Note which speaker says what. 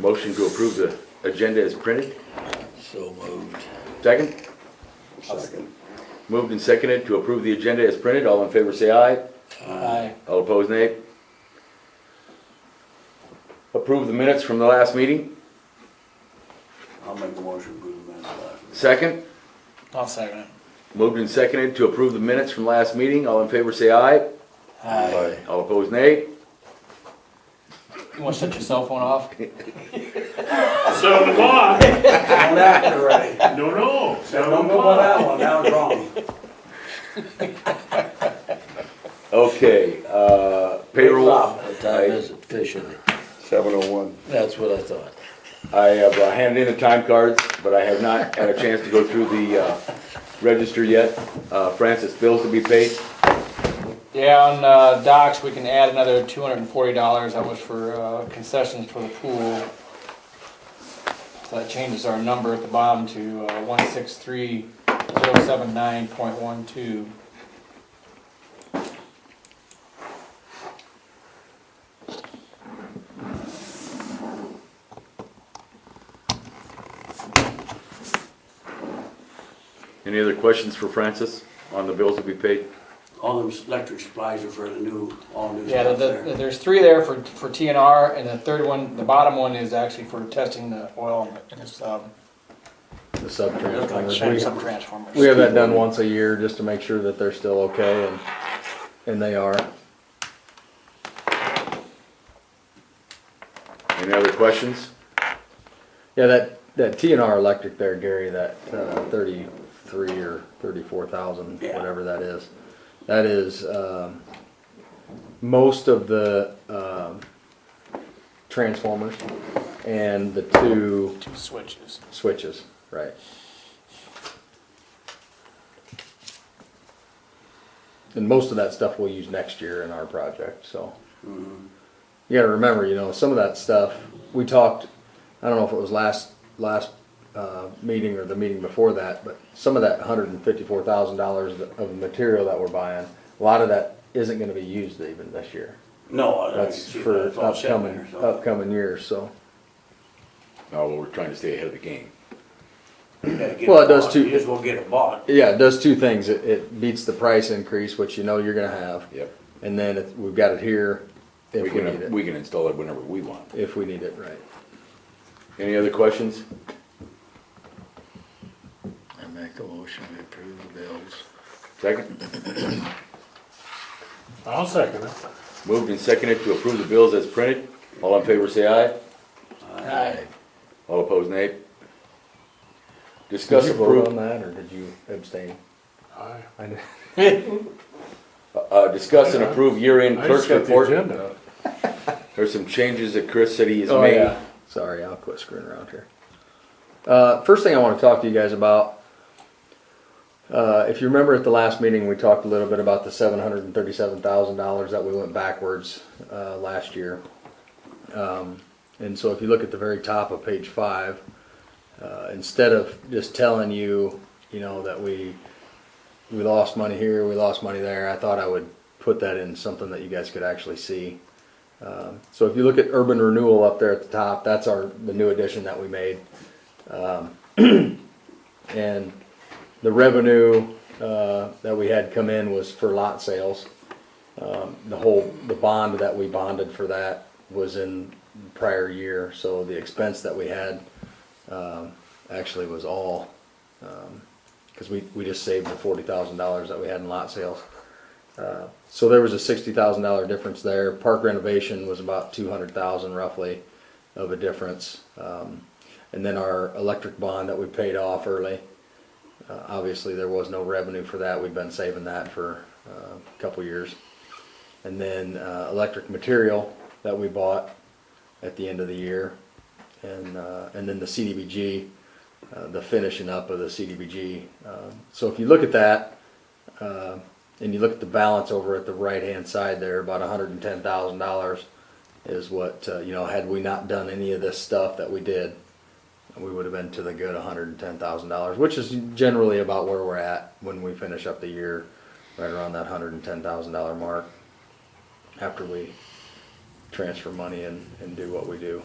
Speaker 1: Motion to approve the agenda as printed.
Speaker 2: So moved.
Speaker 1: Second? Moved and seconded to approve the agenda as printed. All in favor, say aye.
Speaker 2: Aye.
Speaker 1: All opposed, nay. Approve the minutes from the last meeting.
Speaker 3: I'll make the motion, approve the minutes last.
Speaker 1: Second?
Speaker 2: I'll second it.
Speaker 1: Moved and seconded to approve the minutes from last meeting. All in favor, say aye.
Speaker 2: Aye.
Speaker 1: All opposed, nay.
Speaker 4: You wanna shut your cell phone off?
Speaker 5: Seven o'clock,
Speaker 3: I'm acting already.
Speaker 5: no, no,
Speaker 3: Don't
Speaker 5: seven
Speaker 3: go by
Speaker 5: o'clock.
Speaker 3: that one, that was wrong.
Speaker 1: Okay, uh, payroll.
Speaker 2: What time is it officially?
Speaker 6: Seven oh one.
Speaker 2: That's what I thought.
Speaker 1: I have uh, handed in the time cards, but I have not had a chance to go through the uh, register yet. Uh, Francis, bills to be paid.
Speaker 4: Yeah, on uh, docks, we can add another two hundred and forty dollars, that was for uh, concessions for the pool. So that changes our number at the bottom to uh, one six three zero seven nine point one two.
Speaker 1: Any other questions for Francis on the bills to be paid?
Speaker 3: All those electric supplies are for the new, all new
Speaker 4: Yeah, the-
Speaker 3: stuff
Speaker 4: the-
Speaker 3: there.
Speaker 4: there's three there for, for TNR, and the third one, the bottom one is actually for testing the oil and its, um,
Speaker 7: the sub-transformers.
Speaker 4: some
Speaker 7: We-
Speaker 4: transformers.
Speaker 7: We have that done once a year just to make sure that they're still okay and, and they are.
Speaker 1: Any other questions?
Speaker 7: Yeah, that, that TNR electric there, Gary, that uh, thirty-three or thirty-four thousand,
Speaker 3: Yeah.
Speaker 7: whatever that is. That is, um, most of the, um, transformers and the two
Speaker 4: Two switches.
Speaker 7: switches, right? And most of that stuff we'll use next year in our project, so. You gotta remember, you know, some of that stuff, we talked, I don't know if it was last, last, uh, meeting or the meeting before that, but some of that hundred and fifty-four thousand dollars of material that we're buying, a lot of that isn't gonna be used even this year.
Speaker 3: No, I don't
Speaker 7: That's
Speaker 3: see that.
Speaker 7: for
Speaker 3: It's all set
Speaker 7: upcoming,
Speaker 3: there, so.
Speaker 7: upcoming years, so.
Speaker 1: No, well, we're trying to stay ahead of the game.
Speaker 3: You gotta get
Speaker 7: Well, it does
Speaker 3: bought.
Speaker 7: too.
Speaker 3: You just won't get it bought.
Speaker 7: Yeah, it does two things. It, it beats the price increase, which you know you're gonna have.
Speaker 1: Yep.
Speaker 7: And then it, we've got it here
Speaker 1: We
Speaker 7: if we need
Speaker 1: can,
Speaker 7: it,
Speaker 1: we can install it whenever we want.
Speaker 7: if we need it, right.
Speaker 1: Any other questions?
Speaker 2: I make a motion to approve the bills.
Speaker 1: Second?
Speaker 5: I'll second it.
Speaker 1: Moved and seconded to approve the bills as printed. All in favor, say aye.
Speaker 2: Aye.
Speaker 1: All opposed, nay.
Speaker 7: Did
Speaker 1: Discuss
Speaker 7: you vote
Speaker 1: approve,
Speaker 7: on that, or did you abstain?
Speaker 5: Aye.
Speaker 7: I did.
Speaker 1: uh, discuss and approve year-end
Speaker 5: I
Speaker 1: clerk's
Speaker 5: just got the
Speaker 1: report.
Speaker 5: agenda.
Speaker 1: There's some changes that Chris said he has
Speaker 7: Oh,
Speaker 1: made.
Speaker 7: yeah. Sorry, I'll quit screwing around here. Uh, first thing I want to talk to you guys about, uh, if you remember at the last meeting, we talked a little bit about the seven hundred and thirty-seven thousand dollars that we went backwards, uh, last year. Um, and so if you look at the very top of page five, uh, instead of just telling you, you know, that we, we lost money here, we lost money there, I thought I would put that in something that you guys could actually see. Um, So if you look at urban renewal up there at the top, that's our, the new addition that we made. Um, And the revenue uh, that we had come in was for lot sales. Um, The whole, the bond that we bonded for that was in the prior year, so the expense that we had um, actually was all, because we, we just saved the forty thousand dollars that we had in lot sales. So there was a sixty thousand dollar difference there. Park renovation was about two hundred thousand roughly of a difference. Um, and then our electric bond that we paid off early. Uh, obviously, there was no revenue for that. We've been saving that for uh, a couple years. And then uh, electric material that we bought at the end of the year. And, uh, and then the CDBG, uh, the finishing up of the CDBG. Um, so if you look at that, uh, and you look at the balance over at the right-hand side there, about hundred and ten thousand dollars is what, uh, you know, had we not done any of this stuff that we did, we would have been to the good hundred and ten thousand dollars, which is generally about where we're at when we finish up the year, right around that hundred and ten thousand dollar mark, after we transfer money and, and do what we do.